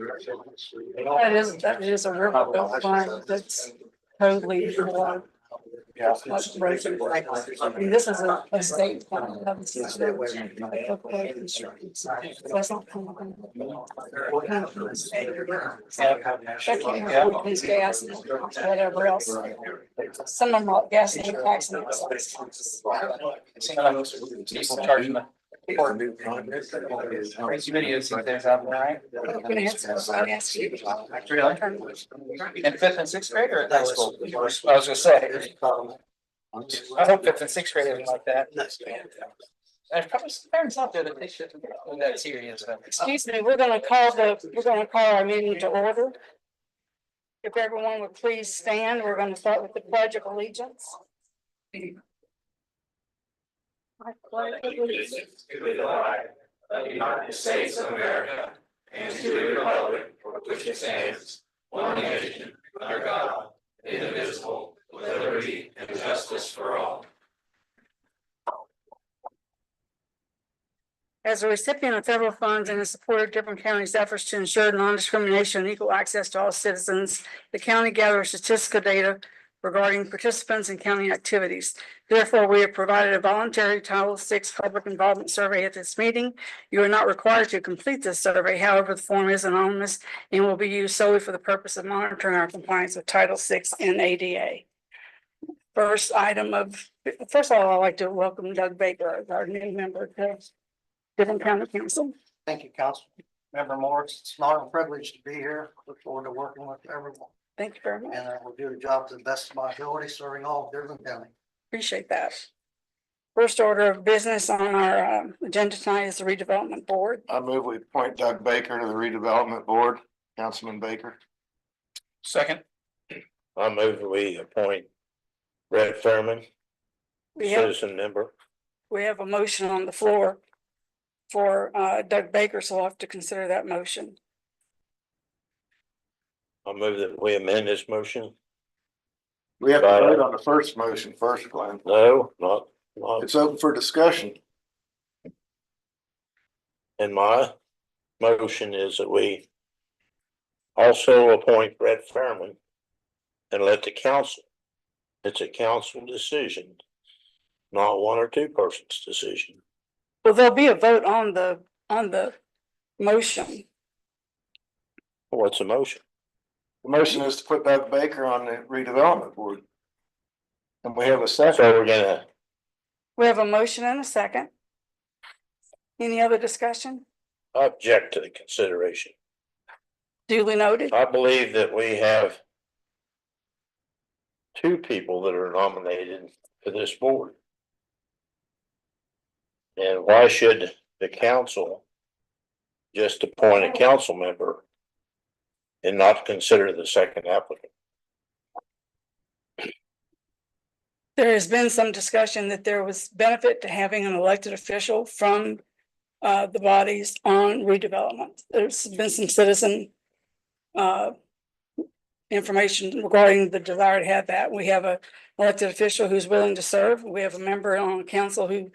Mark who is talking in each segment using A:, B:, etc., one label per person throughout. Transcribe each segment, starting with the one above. A: That is, that is a riverboat farm that's totally for,
B: Yeah.
A: What's breaking? I mean, this is a, a state. farm. That was just a- a local construction. So that's not kind of thing. Check it out with these gas and whatever else. Some of them are gas and tax. and all sorts.
B: People charging the. Crazy videos and things out there, right?
A: I'm gonna have to- I'll ask you.
B: Really? In fifth and sixth grade or at high school? I was gonna say, I hope fifth and sixth grade isn't like that. There's probably some parents out there that they shouldn't be that serious. but-
A: Excuse me, we're gonna call the, we're gonna call our meeting to order. If everyone would please stand, we're gonna start with the pledge of allegiance. I pledge allegiance
C: To the flag of the United States of America and to the republic for which it stands, one nation, under God, indivisible, with liberty and justice for all.
A: As a recipient of federal funds and in support of different counties' efforts to ensure non-discrimination and equal access to all citizens, the county gathers statistical data regarding participants in county activities. Therefore, we have provided a voluntary Title VI public involvement survey at this meeting. You are not required to complete this survey. However, the form is anonymous and will be used solely for the purpose of monitoring our compliance with Title VI and ADA. First item of, first of all, I'd like to welcome Doug Baker, as our new member to Different County Council.
D: Thank you, Council Member Morris. It's an honor and privilege to be here. Look forward to working with everyone
A: Thank you very much.
D: and I will do the job to the best of my ability, serving all of Dearborn County.
A: Appreciate that. First order of business on our um, agenda tonight is the redevelopment board.
E: I move we appoint Doug Baker to the redevelopment board, Councilman Baker.
B: Second,
F: I move we appoint Brett Thurman,
A: We have,
F: citizen member.
A: we have a motion on the floor for uh, Doug Baker, so we'll have to consider that motion.
F: I move that we amend this motion.
E: We have to
F: Right.
E: vote on the first motion first, Glenn.
F: No, not, not
E: It's open for discussion.
F: And my. Motion is that we also appoint Brett Thurman and let the council. It's a council decision, not one or two persons' decision.
A: Well, there'll be a vote on the, on the motion.
F: What's the motion?
E: The motion is to put Doug Baker on the redevelopment board. And we have a
F: So
E: second.
F: we're gonna,
A: We have a motion and a second. Any other discussion?
F: I object to the consideration.
A: Duly noted.
F: I believe that we have two people that are nominated for this board. And why should the council just appoint a council member and not consider the second applicant?
A: There has been some discussion that there was benefit to having an elected official from uh, the bodies on redevelopment. There's been some citizen uh, information regarding the desire to have that. We have a elected official who's willing to serve. We have a member on council who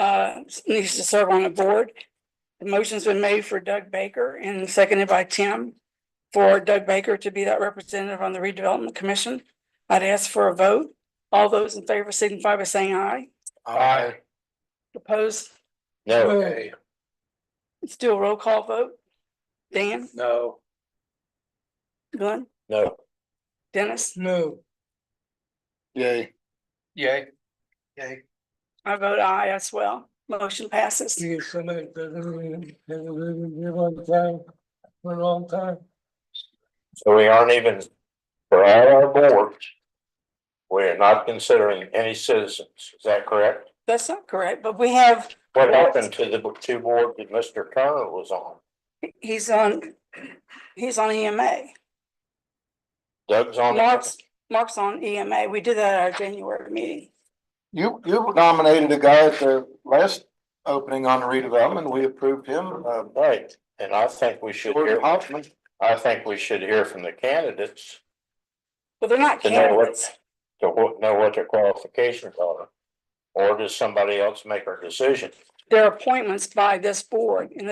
A: uh, needs to serve on a board. The motion's been made for Doug Baker and seconded by Tim for Doug Baker to be that representative on the redevelopment commission. I'd ask for a vote. All those in favor signify by saying aye.
E: Aye.
A: Opposed,
F: No,
B: Hey.
A: let's do a roll call vote. Dan,
B: no.
A: Glenn,
F: no,
A: Dennis,
B: No.
E: Yay.
B: Yay.
D: Okay,
A: I vote aye as well. Motion passes.
F: so we aren't even, for all our boards, we're not considering any citizens, is that correct?
A: That's not correct, but we have,
F: What happened to the two boards that Mr. Turner was on?
A: he's on, he's on E EMA.
F: Doug's on.
A: Mark's, Mark's on EMA. We did that at our January meeting.
E: You, you nominated a guy at the last opening on the redevelopment. We approved him. Uh,
F: Right, and I think we should
E: Gordon
F: hear,
E: Hoffman.
F: I think we should hear from the candidates
A: But they're not
F: to know what,
A: candidates.
F: to wha- know what their qualifications are. Or does somebody else make our decision?
A: They're appointments by this board and